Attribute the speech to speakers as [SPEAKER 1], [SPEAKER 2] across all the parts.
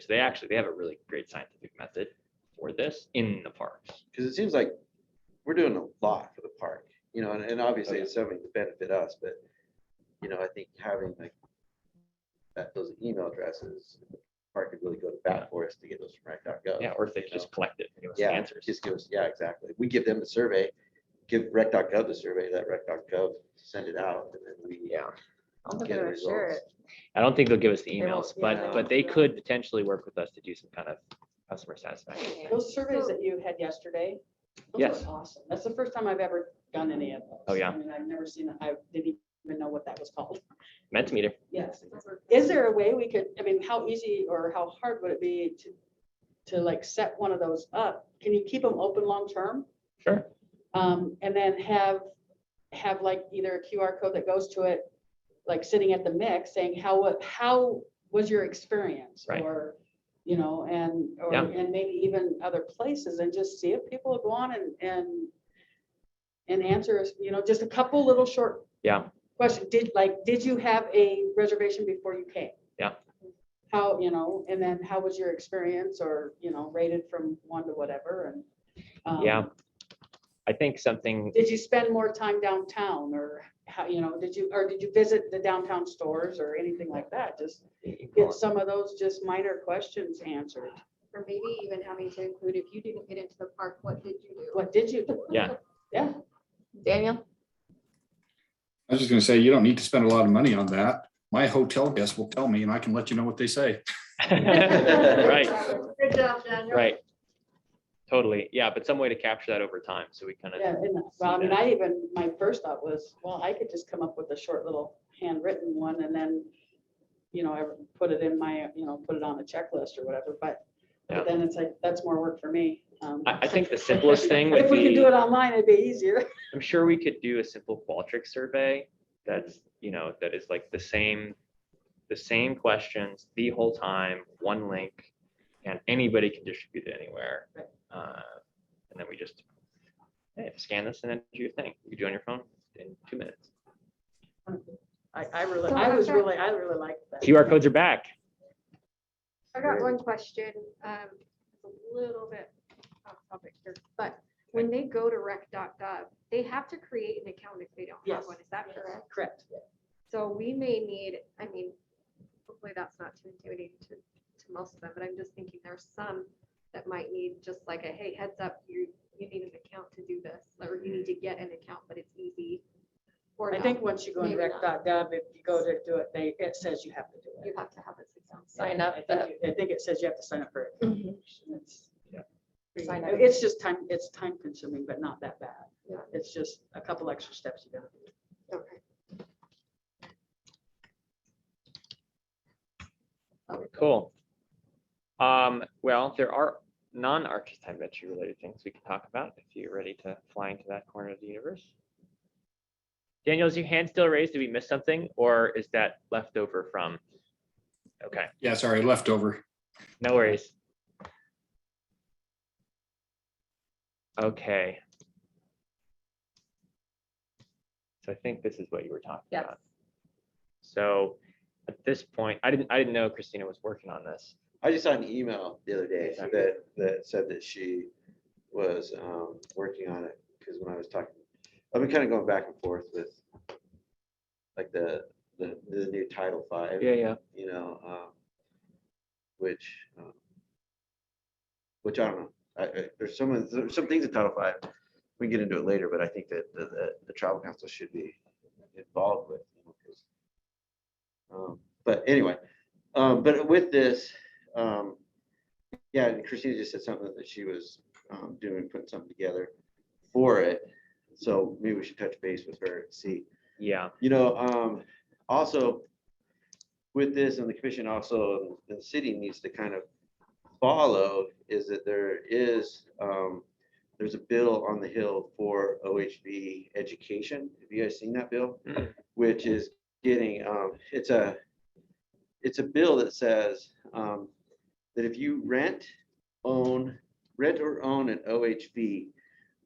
[SPEAKER 1] So they actually, they have a really great scientific method for this in the parks.
[SPEAKER 2] Because it seems like we're doing a lot for the park, you know, and, and obviously
[SPEAKER 1] Okay.
[SPEAKER 2] it's something to benefit us, but, you know, I think having like that, those email addresses, the park could really go to bat for us to get those from rec.gov.
[SPEAKER 1] Yeah, or if they
[SPEAKER 2] you
[SPEAKER 1] just
[SPEAKER 2] know.
[SPEAKER 1] collect it and give us the
[SPEAKER 2] Yeah,
[SPEAKER 1] answers.
[SPEAKER 2] just give us, yeah, exactly. We give them the survey, give rec.gov the survey, let rec.gov send it out, and then we
[SPEAKER 1] Yeah,
[SPEAKER 3] I'm
[SPEAKER 2] get
[SPEAKER 3] gonna
[SPEAKER 2] the
[SPEAKER 3] share
[SPEAKER 2] results.
[SPEAKER 1] I don't think they'll give us the
[SPEAKER 3] They won't,
[SPEAKER 1] emails,
[SPEAKER 3] yeah.
[SPEAKER 1] but, but they could potentially work with us to do some kind of customer satisfaction. thing.
[SPEAKER 4] Those surveys that you had yesterday, those
[SPEAKER 1] Yes.
[SPEAKER 4] were awesome. That's the first time I've ever done any of those.
[SPEAKER 1] Oh, yeah.
[SPEAKER 4] I mean, I've never seen, I didn't even know what that was called.
[SPEAKER 1] Mentimeter.
[SPEAKER 4] Yes. Is there a way we could, I mean, how easy or how hard would it be to, to like set one of those up? Can you keep them open long-term?
[SPEAKER 1] Sure.
[SPEAKER 4] Um, and then have, have like either a QR code that goes to it, like sitting at the mix saying, how, wa- how was your experience?
[SPEAKER 1] Right.
[SPEAKER 4] Or, you know, and, or,
[SPEAKER 1] Yeah.
[SPEAKER 4] and maybe even other places and just see if people will go on and, and, and answer, you know, just a couple little short.
[SPEAKER 1] Yeah.
[SPEAKER 4] Question, did, like, did you have a reservation before you came?
[SPEAKER 1] Yeah.
[SPEAKER 4] How, you know, and then how was your experience or, you know, rated from one to whatever and. um,
[SPEAKER 1] Yeah. I think something,
[SPEAKER 4] did you spend more time downtown or how, you know, did you, or did you visit the downtown stores or anything like that? Just get some of those just minor questions answered.
[SPEAKER 3] Or maybe even having to include, if you didn't get into the park, what did you do?
[SPEAKER 4] What did you do?
[SPEAKER 1] Yeah.
[SPEAKER 4] Yeah,
[SPEAKER 3] Daniel?
[SPEAKER 5] I was just gonna say, you don't need to spend a lot of money on that. My hotel guest will tell me and I can let you know what they say.
[SPEAKER 1] right,
[SPEAKER 3] Good job, Daniel.
[SPEAKER 1] right. Totally. Yeah, but some way to capture that over time. So we kind
[SPEAKER 4] yeah.
[SPEAKER 1] of,
[SPEAKER 4] and, Well, I mean, I even, my first thought was, well, I could just come up with a short little handwritten one and then, you know, I put it in my, you know, put it on the checklist or whatever, but
[SPEAKER 1] Yeah.
[SPEAKER 4] but then it's like, that's more work for me. Um,
[SPEAKER 1] I, I think the simplest thing would be.
[SPEAKER 4] If we could do it online, it'd be easier.
[SPEAKER 1] I'm sure we could do a simple Qualtrics survey that's, you know, that is like the same, the same questions the whole time, one link, and anybody can distribute it anywhere.
[SPEAKER 4] Right.
[SPEAKER 1] Uh, And then we just, hey, scan this and then do your thing. You do it on your phone in two minutes.
[SPEAKER 4] I, I really,
[SPEAKER 3] So
[SPEAKER 4] I was
[SPEAKER 3] Alexa-
[SPEAKER 4] really, I really liked that.
[SPEAKER 1] QR codes are back.
[SPEAKER 3] I got one question, um, it's a little bit off topic here, but when they go to rec.gov, they have to create an account if they don't have
[SPEAKER 4] Yes.
[SPEAKER 3] one, is that correct?
[SPEAKER 4] Correct.
[SPEAKER 3] So we may need, I mean, hopefully that's not too intimidating to, to most of them, but I'm just thinking there's some that might need just like a, hey, heads up, you, you need an account to do this, or you need to get an account, but it's easy. Or
[SPEAKER 4] I
[SPEAKER 3] no,
[SPEAKER 4] think once you go into
[SPEAKER 3] Maybe not.
[SPEAKER 4] rec.gov, if you go to do it, they, it says you have to do
[SPEAKER 3] You
[SPEAKER 4] it.
[SPEAKER 3] have to have this account.
[SPEAKER 6] Sign
[SPEAKER 4] I
[SPEAKER 6] up,
[SPEAKER 4] think you- I think it says you have to sign up for it. It's-
[SPEAKER 1] Yeah.
[SPEAKER 6] Sign up.
[SPEAKER 4] It's just time, it's time consuming, but not that bad.
[SPEAKER 3] Yeah.
[SPEAKER 4] It's just a couple extra steps you gotta do.
[SPEAKER 3] Okay.
[SPEAKER 1] Cool. Um, well, there are non-archetype veteran related things we can talk about if you're ready to fly into that corner of the universe. Daniel, is your hand still raised? Did we miss something or is that left over from? Okay,
[SPEAKER 5] Yeah, sorry, leftover.
[SPEAKER 1] no worries. Okay. So I think this is what you were talking
[SPEAKER 6] Yes.
[SPEAKER 1] about. So at this point, I didn't, I didn't know Christina was working on this.
[SPEAKER 2] I just saw an email the other day
[SPEAKER 1] Yeah.
[SPEAKER 2] that, that said that she was um, working on it, because when I was talking, I've been kind of going back and forth with like the, the, the new Title Five,
[SPEAKER 1] Yeah, yeah.
[SPEAKER 2] you know, um, which, um, which I don't know, I, I- there's some, there's some things in Title Five, we can get into it later, but I think that the, the, the tribal council should be involved with. you know, 'cause, um, But anyway, um, but with this, um, yeah, and Christina just said something that she was, um, doing, putting something together for it. So maybe we should touch base with her, and see,
[SPEAKER 1] Yeah,
[SPEAKER 2] you know, um, also with this and the commission also, the city needs to kind of follow is that there is, um, there's a bill on the hill for OHV education. Have you guys seen that bill?
[SPEAKER 1] Mm.
[SPEAKER 2] Which is getting, um, it's a, it's a bill that says, um, that if you rent, own, rent or own an OHV,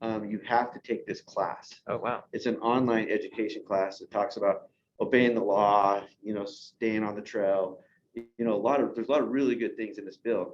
[SPEAKER 2] um, you have to take this class
[SPEAKER 1] oh, wow.
[SPEAKER 2] it's an online education class that talks about obeying the law, you know, staying on the trail, you know, a lot of, there's a lot of really good things in this bill.